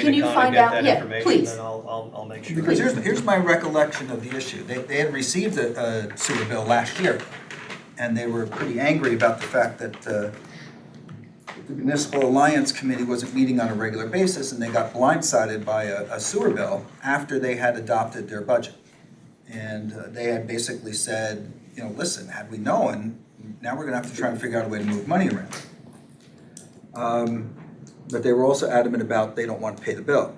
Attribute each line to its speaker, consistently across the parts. Speaker 1: can you
Speaker 2: Donna
Speaker 1: find
Speaker 2: get
Speaker 1: out-
Speaker 2: that
Speaker 1: yeah,
Speaker 2: information,
Speaker 1: please.
Speaker 2: Then I'll, I'll, I'll make sure.
Speaker 3: Because here's, here's my recollection of the issue. They, they had received a, a sewer bill last year, and they were pretty angry about the fact that uh, the Municipal Alliance Committee wasn't meeting on a regular basis, and they got blindsided by a a sewer bill after they had adopted their budget. And uh, they had basically said, you know, listen, had we known, now we're gonna have to try and figure out a way to move money around. Um, But they were also adamant about they don't want to pay the bill.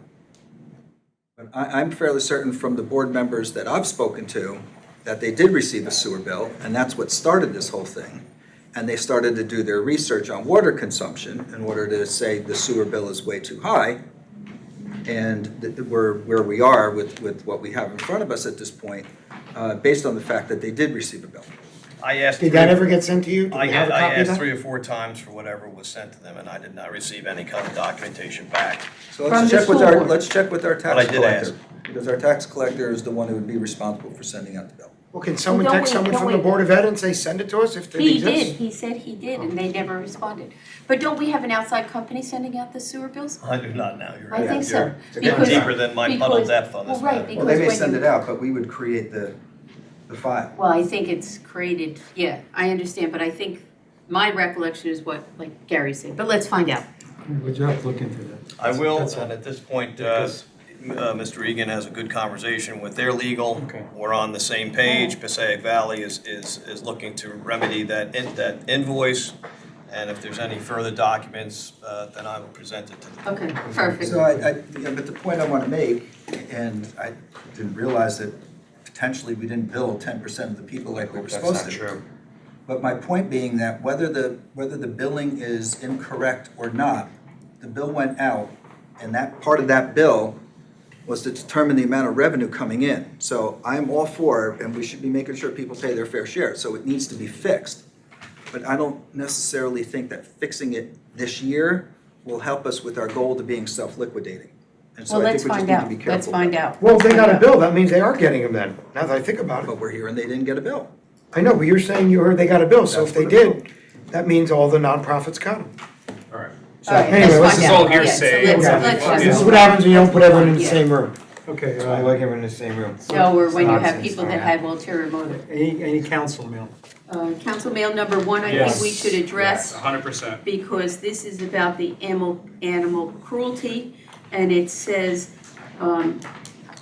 Speaker 3: But I, I'm fairly certain from the board members that I've spoken to, that they did receive a sewer bill, and that's what started this whole thing. And they started to do their research on water consumption in order to say the sewer bill is way too high. And that we're, where we are with, with what we have in front of us at this point, uh, based on the fact that they did receive a bill.
Speaker 2: I asked.
Speaker 4: Did that
Speaker 2: three-
Speaker 4: ever get sent to you? Do
Speaker 2: I,
Speaker 4: we have a
Speaker 2: get- I
Speaker 4: copy of
Speaker 2: asked
Speaker 4: that?
Speaker 2: three or four times for whatever was sent to them, and I did not receive any kind of documentation back.
Speaker 3: So
Speaker 1: From
Speaker 3: let's
Speaker 1: the
Speaker 3: check with
Speaker 1: school
Speaker 3: our,
Speaker 1: board.
Speaker 3: let's check with our
Speaker 2: But I
Speaker 3: tax
Speaker 2: did
Speaker 3: collector.
Speaker 2: ask.
Speaker 3: Because our tax collector is the one who would be responsible for sending out the bill.
Speaker 4: Well, can someone
Speaker 1: Don't
Speaker 4: text
Speaker 1: we-
Speaker 4: someone
Speaker 1: don't
Speaker 4: from the
Speaker 1: we-
Speaker 4: Board of Ed and say, send it to us if it
Speaker 1: He
Speaker 4: exists?
Speaker 1: did, he said he did, and
Speaker 2: Oh.
Speaker 1: they never responded. But don't we have an outside company sending out the sewer bills?
Speaker 2: I do not now, you're
Speaker 1: I
Speaker 2: right.
Speaker 1: think so.
Speaker 3: It's a
Speaker 2: You're
Speaker 1: because-
Speaker 2: deeper than my puddle
Speaker 1: because-
Speaker 2: depth on this
Speaker 1: well, right,
Speaker 2: matter.
Speaker 1: Well, they may Because when send you- it
Speaker 3: out, but we would create the, the file.
Speaker 1: Well, I think it's created, yeah, I understand, but I think my recollection is what, like Gary said, but let's find out.
Speaker 5: Would you have to look into that?
Speaker 2: I will,
Speaker 5: That's all.
Speaker 2: and at this point, uh, m- uh, Mr. Egan has a good conversation with their legal.
Speaker 5: Okay.
Speaker 2: We're on the same page. Passaic Valley is, is, is looking to remedy that, in- that invoice. And if there's any further documents, uh, then I will present it to them.
Speaker 1: Okay, perfect.
Speaker 3: So I, I, yeah, but the point I want to make, and I didn't realize that potentially we didn't bill ten percent of the people like we were
Speaker 2: That's
Speaker 3: supposed to.
Speaker 2: not true.
Speaker 3: But my point being that whether the, whether the billing is incorrect or not, the bill went out, and that, part of that bill was to determine the amount of revenue coming in. So I'm all for, and we should be making sure people pay their fair share, so it needs to be fixed. But I don't necessarily think that fixing it this year will help us with our goal to being self-liquidating. And so
Speaker 1: Well,
Speaker 3: I
Speaker 1: let's
Speaker 3: think we just
Speaker 1: find
Speaker 3: need to
Speaker 1: out,
Speaker 3: be careful.
Speaker 1: let's find
Speaker 3: about
Speaker 1: out.
Speaker 4: Well, if they got a
Speaker 1: Yeah.
Speaker 4: bill, that means they are getting them then, now that I think about
Speaker 3: that.
Speaker 4: it.
Speaker 3: But we're here and they didn't get a bill.
Speaker 4: I know, but you're saying you heard they got a bill, so if they
Speaker 3: That's what it
Speaker 4: did, that means all the nonprofits got them.
Speaker 5: All right.
Speaker 1: All right,
Speaker 4: anyway,
Speaker 1: let's
Speaker 4: this
Speaker 1: find out.
Speaker 4: is
Speaker 1: Oh, Yeah,
Speaker 6: all
Speaker 1: so let's-
Speaker 6: hearsay.
Speaker 1: let's
Speaker 4: Okay.
Speaker 6: Well,
Speaker 1: just-
Speaker 4: This is what happens when you don't put everyone in the
Speaker 1: Yeah.
Speaker 4: same room.
Speaker 5: Okay,
Speaker 4: So I
Speaker 5: uh,
Speaker 4: like everyone in the same room.
Speaker 1: No, or when you have
Speaker 5: Nonsense,
Speaker 1: people that
Speaker 5: alright.
Speaker 1: have ulterior motive.
Speaker 5: any, any council mail?
Speaker 1: Uh, Council Mail number one, I think we should address
Speaker 6: hundred percent.
Speaker 1: because this is about the animal, animal cruelty, and it says, um,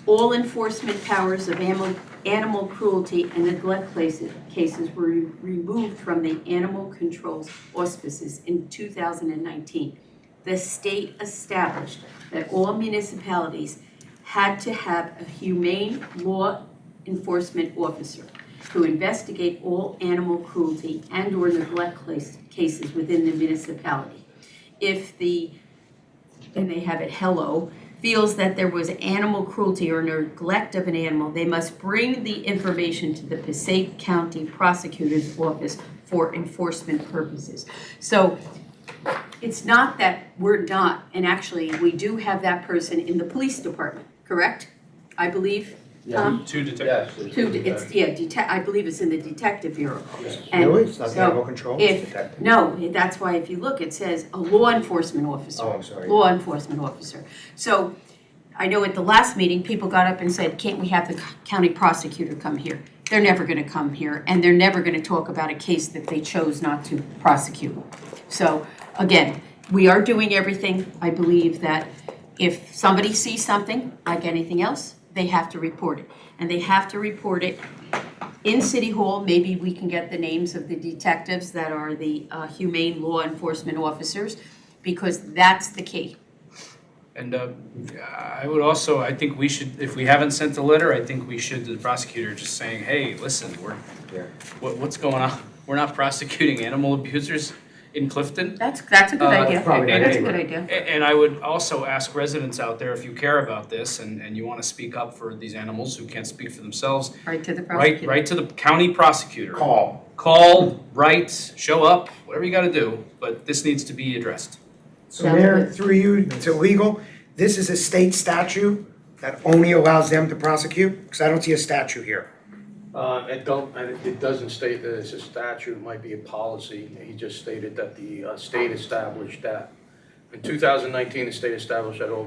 Speaker 1: all enforcement powers of animal, animal cruelty and neglect places, cases were re- removed from the animal control's auspices in two thousand and nineteen. The state established that all municipalities had to have a humane law enforcement officer to investigate all animal cruelty and or neglect clas- cases within the municipality. If the, and they have it, hello, feels that there was animal cruelty or neglect of an animal, they must bring the information to the Passaic County Prosecutor's Office for enforcement purposes. So it's not that we're not, and actually, we do have that person in the police department, correct? I believe, Tom?
Speaker 6: Two detectives.
Speaker 7: Yes.
Speaker 1: Two, it's, yeah, detec I believe it's in the detective bureau. And
Speaker 4: Really, it's not the
Speaker 1: so
Speaker 4: animal control, it's
Speaker 1: if-
Speaker 4: detective.
Speaker 1: No, that's why if you look, it says a law enforcement officer.
Speaker 4: Oh, I'm sorry.
Speaker 1: Law enforcement officer. So I know at the last meeting, people got up and said, can't we have the county prosecutor come here? They're never gonna come here, and they're never gonna talk about a case that they chose not to prosecute. So, again, we are doing everything, I believe that if somebody sees something, like anything else, they have to report it. And they have to report it in City Hall, maybe we can get the names of the detectives that are the uh, humane law enforcement officers, because that's the key.
Speaker 6: And uh, I would also, I think we should, if we haven't sent the letter, I think we should to the prosecutor, just saying, hey, listen, we're,
Speaker 3: Yeah.
Speaker 6: what, what's going on? We're not prosecuting animal abusers in Clifton.
Speaker 1: That's, that's a good
Speaker 6: Uh,
Speaker 1: idea.
Speaker 6: it's probably
Speaker 1: That's a
Speaker 6: not
Speaker 1: good idea.
Speaker 6: A- And I would also ask residents out there, if you care about this and, and you want to speak up for these animals who can't speak for themselves,
Speaker 1: Right to the
Speaker 6: write,
Speaker 1: prosecutor.
Speaker 6: write to the county prosecutor.
Speaker 5: Call.
Speaker 6: Call, write, show up, whatever you got to do, but this needs to be addressed.
Speaker 4: So Mayor, through you to legal, this is a state statute that only allows them to prosecute, because I don't see a statute here.
Speaker 7: Uh, it don't, and it- it doesn't state that it's a statute, it might be a policy. He just stated that the uh, state established that. In 2019, the state established that all